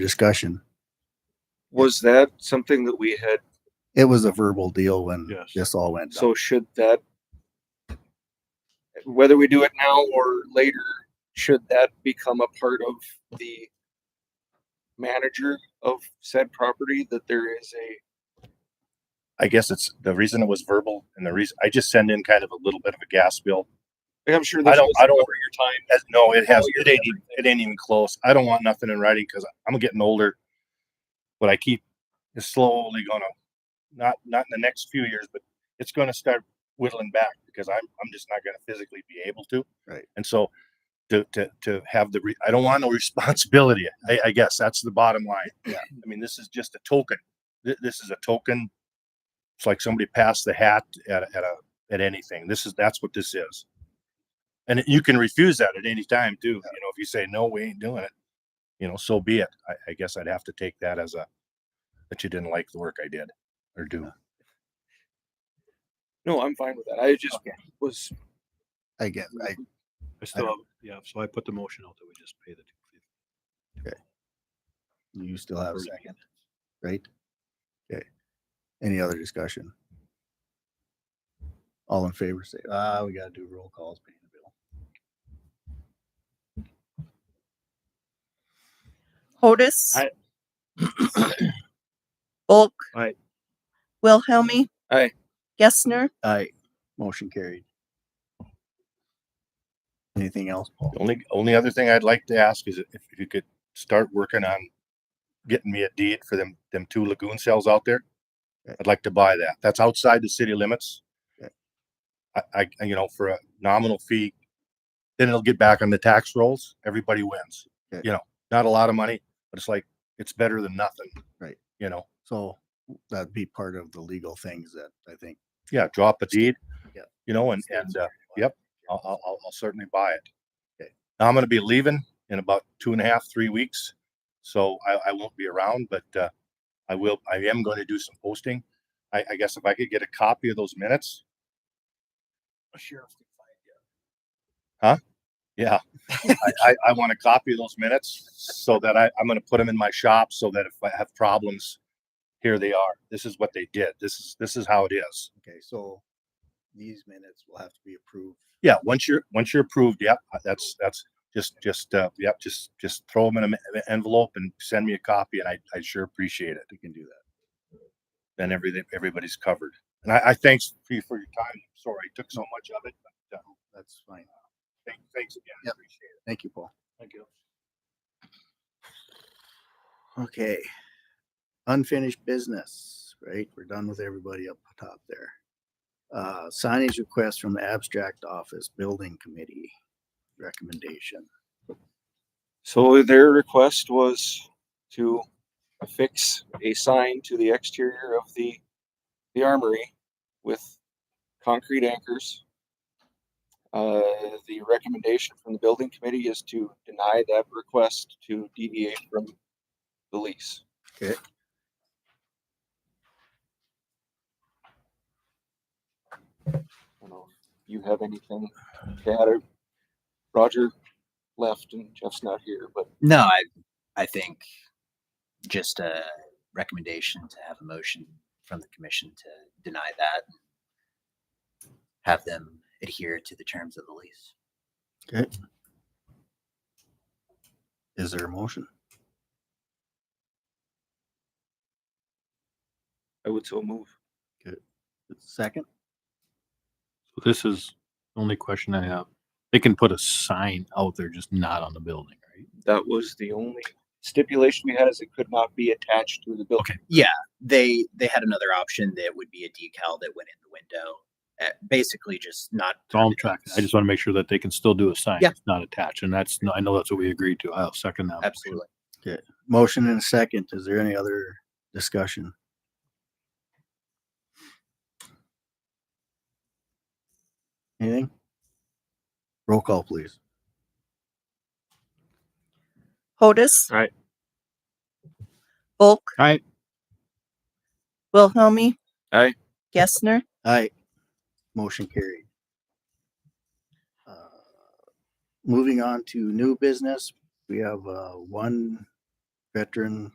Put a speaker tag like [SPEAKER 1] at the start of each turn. [SPEAKER 1] discussion.
[SPEAKER 2] Was that something that we had,
[SPEAKER 1] It was a verbal deal when
[SPEAKER 3] Yes.
[SPEAKER 1] this all went down.
[SPEAKER 2] so should that, whether we do it now or later, should that become a part of the manager of said property, that there is a,
[SPEAKER 4] I guess it's the reason it was verbal and the reason I just send in kind of a little bit of a gas bill.
[SPEAKER 2] like, I'm sure
[SPEAKER 4] I
[SPEAKER 2] this
[SPEAKER 4] don't,
[SPEAKER 2] was
[SPEAKER 4] I don't,
[SPEAKER 2] over your time.
[SPEAKER 4] as- no, it has,
[SPEAKER 2] Oh, you're
[SPEAKER 4] it ain't, even- it ain't even close. I don't want nothing in writing because I'm getting older. But I keep, it's slowly gonna, not, not in the next few years, but it's gonna start whittling back because I'm, I'm just not gonna physically be able to.
[SPEAKER 1] Right.
[SPEAKER 4] And so to, to, to have the, re- I don't want no responsibility. I, I guess that's the bottom line. Yeah. I mean, this is just a token. Th- This is a token. It's like somebody passed the hat at, a- at a, at anything. This is, that's what this is. And it- you can refuse that at any time too. You know, if you say, no, we ain't doing it, you know, so be it. I, I guess I'd have to take that as a, that you didn't like the work I did or do.
[SPEAKER 2] No, I'm fine with that. I just was,
[SPEAKER 1] I get, I,
[SPEAKER 3] Mm-hmm. I still, have- yeah, so I put the motion out that we just pay the.
[SPEAKER 1] you still have a
[SPEAKER 3] Right.
[SPEAKER 1] second, right? Okay. Any other discussion? All in favor, say, ah, we gotta do roll calls, paying the bill.
[SPEAKER 5] Hodis.
[SPEAKER 2] Aye.
[SPEAKER 5] Bulk.
[SPEAKER 3] Aye.
[SPEAKER 5] Wilhelmie.
[SPEAKER 2] Aye.
[SPEAKER 5] Gessner.
[SPEAKER 1] Aye, motion carried. Anything else, Paul?
[SPEAKER 4] The only, only other thing I'd like to ask is if you could start working on getting me a deed for them, them two lagoon cells out there.
[SPEAKER 1] Okay.
[SPEAKER 4] I'd like to buy that. That's outside the city limits.
[SPEAKER 1] Okay.
[SPEAKER 4] I, I, and, you know, for a nominal fee, then it'll get back on the tax rolls. Everybody wins.
[SPEAKER 1] Okay.
[SPEAKER 4] You know, not a lot of money, but it's like, it's better than nothing.
[SPEAKER 1] Right.
[SPEAKER 4] You know,
[SPEAKER 1] So that'd be part of the legal things that I think.
[SPEAKER 4] yeah, drop a deed.
[SPEAKER 1] Yeah.
[SPEAKER 4] You know, and,
[SPEAKER 1] Stands
[SPEAKER 4] and, uh,
[SPEAKER 1] for.
[SPEAKER 4] yep, I'll, I'll, I'll- I'll certainly buy it.
[SPEAKER 1] Okay.
[SPEAKER 4] Now I'm gonna be leaving in about two and a half, three weeks. So I, I won't be around, but, uh, I will, I am going to do some posting. I, I guess if I could get a copy of those minutes. Huh? Yeah. I, I, I want a copy of those minutes so that I, I'm gonna put them in my shop so that if I have problems, here they are. This is what they did. This is, this is how it is.
[SPEAKER 1] Okay, so these minutes will have to be approved.
[SPEAKER 4] Yeah, once you're, once you're approved, yep, uh, that's, that's, just, just, uh, yep, just, just throw them in an envelope and send me a copy and I, I sure appreciate it.
[SPEAKER 1] We can do that.
[SPEAKER 4] Then everything, everybody's covered. And I, I thanks for you for your time. Sorry, I took so much of it, but, uh,
[SPEAKER 1] That's fine.
[SPEAKER 4] thank- thanks again. I
[SPEAKER 1] Yep.
[SPEAKER 4] Appreciate it.
[SPEAKER 1] Thank you, Paul.
[SPEAKER 3] Thank you.
[SPEAKER 1] Okay. Unfinished business, right? We're done with everybody up top there. Uh, signage request from the abstract office building committee recommendation.
[SPEAKER 2] so their request was to affix a sign to the exterior of the, the armory with concrete anchors. Uh, the recommendation from the building committee is to deny that request to deviate from the lease. I don't know if You have anything to add? or- Roger left and Jeff's not here, but
[SPEAKER 6] No, I, I think just a recommendation to have a motion from the commission to deny that. Have them adhere to the terms of the lease.
[SPEAKER 1] Is there a motion?
[SPEAKER 2] I would so move.
[SPEAKER 1] Second?
[SPEAKER 3] So This is the only question I have. They can put a sign out there, just not on the building, right?
[SPEAKER 2] That was the only stipulation we had is it could not be attached to the building.
[SPEAKER 3] Okay.
[SPEAKER 6] They, they had another option that would be a decal that went in the window, uh, basically just not.
[SPEAKER 3] It's all I'm tracking. I just want to make sure that they can still do a sign.
[SPEAKER 6] Yeah.
[SPEAKER 3] that's Not attached, and that's, I know that's what we agreed to. I'll second that.
[SPEAKER 6] Absolutely.
[SPEAKER 1] Motion and a second. Is there any other discussion? Anything? Roll call, please.
[SPEAKER 5] Hodis.
[SPEAKER 2] Aye.
[SPEAKER 5] Bulk.
[SPEAKER 3] Aye.
[SPEAKER 5] Wilhelmie.
[SPEAKER 2] Aye.
[SPEAKER 5] Gessner.
[SPEAKER 1] Aye. Motion carried. Uh, Moving on to new business, we have uh, one veteran